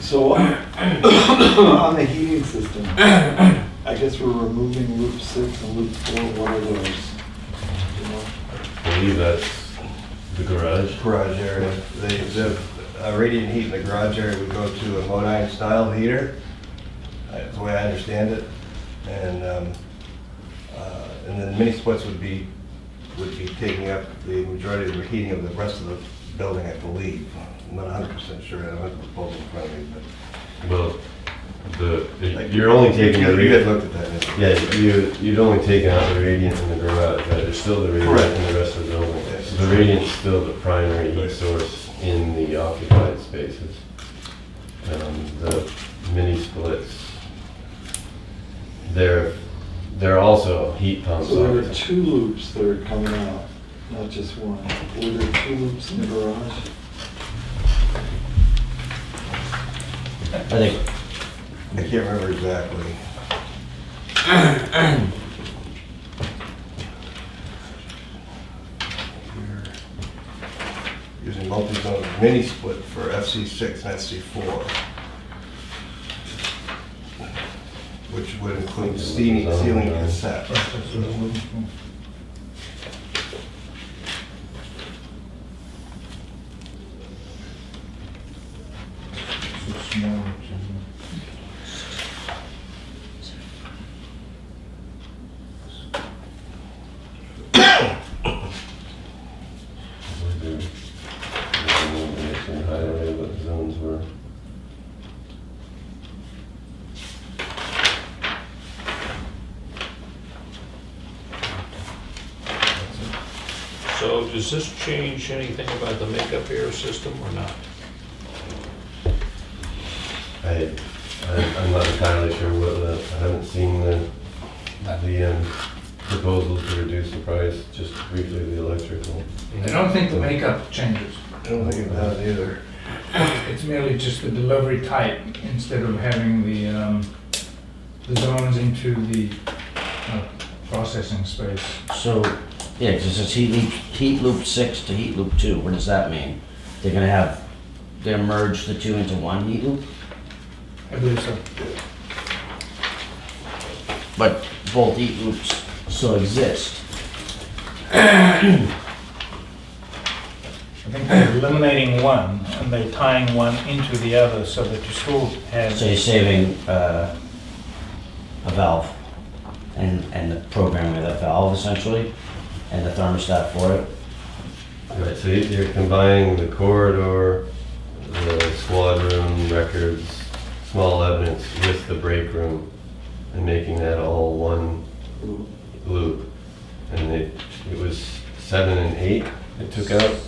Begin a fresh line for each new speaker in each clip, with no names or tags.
So on the heating system, I guess we're removing loop six and loop four, what are those? You know?
believe that's the garage.
garage area. The, the uh, radiant heat in the garage area would go to a modine style heater, uh, the way I understand it. And, um, uh, and then mini splits would be, would be taking up the majority of the heating of the rest of the building, I believe. I'm not hundred percent sure, I don't have the proposal in front of me, but.
Well, the, you're only taking the
You had
radiant.
looked at that. didn't you?
Yeah, you, you'd only taken out the radiant in the garage, right? There's still the radiant
Correct.
in the rest of the building.
Yes.
So the radiant's still the primary heat source in the occupied spaces. Um, The mini splits, they're, they're also heat pumps.
So there are
obviously.
two loops that are coming out, not just one. Were there two loops in the garage?
I think
I can't remember exactly. Using multi-zone mini split for FC6 and FC4. Which would include steaming, sealing and set.
Maybe Nation Highway, what zones were.
So does this change anything about the makeup air system or not?
I, I- I'm not entirely sure what the, I haven't seen the, the um, proposal to reduce the price, just briefly the electrical.
I don't think the makeup changes.
I don't think it does either.
It's merely just the delivery type instead of having the, um, the zones into the uh, processing space.
So, yeah, because it's heat loop, heat loop six to heat loop two, what does that mean? They're gonna have, they're merge the two into one heat loop?
I believe so.
But both heat loops still exist.
I think they're eliminating one and they're tying one into the other so that you still have.
So you're saving, uh, a valve and, and the programming of that valve essentially, and the thermostat for it.
Right, so you- you're combining the corridor, the squad room, records, small evidence with the break room and making that all one loop. And it, it was seven and eight it took out?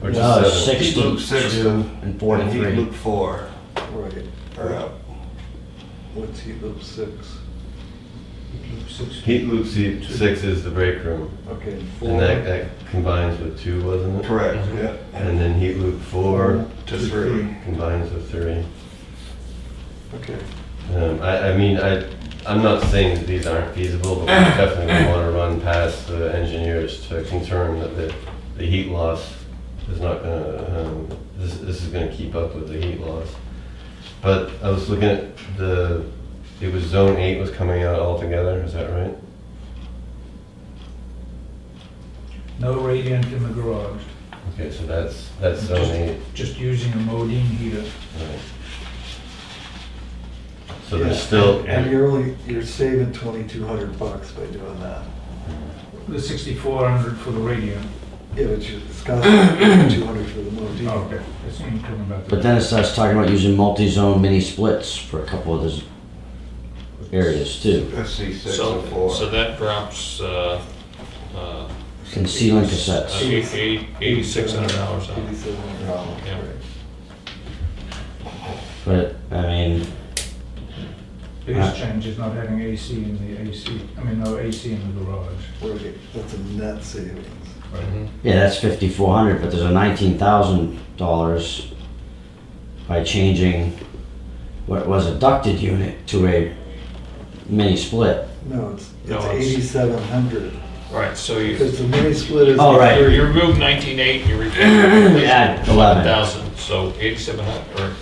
Or just
No,
seven?
six
Heat loop six and
And four to
heat
three.
loop four uh,
Right,
are out.
what's heat loop six?
Heat loop seat six is the break room,
Okay,
and that,
four,
that combines with two, wasn't it?
Correct, yeah.
And then heat loop four
To three.
combines with three.
okay.
Um, I, I mean, I, I'm not saying that these aren't feasible, but we definitely want to run past the engineers to confirm that the, the heat loss is not gonna, um, this, this is gonna keep up with the heat loss. But I was looking at the, it was zone eight was coming out altogether, is that right?
No radiant in the garage,
Okay, so that's, that's zone eight.
just using a modine heater.
Right. So there's
Yeah,
still,
And you're only, you're saving twenty-two hundred bucks by doing that.
The 6400 for the radiant.
Yeah, but you, it's got two hundred for the motor.
Oh, okay. That's what you're talking about.
But then it starts talking about using multi-zone mini splits for a couple of those areas too.
FC six
So
and four.
So that drops, uh, uh,
And sealing
uh,
cassettes.
eight- eight- $8,600 out.
Eighty-seven hundred dollars,
Yeah.
right.
But, I mean,
Biggest change is not having AC in the AC, I mean, no AC in the garage.
Right, that's a net savings.
Mhm.
Mm-hmm.
yeah, that's fifty-four hundred, but there's a nineteen thousand dollars by changing what was a ducted unit to a mini split.
No, it's,
No,
it's
it's-
eighty-seven hundred,
Right, so you,
because the mini split is.
Oh, right.
three.
you remove nineteen eight, you replace
Add eleven.
11,000, so eighty-seven hundred, or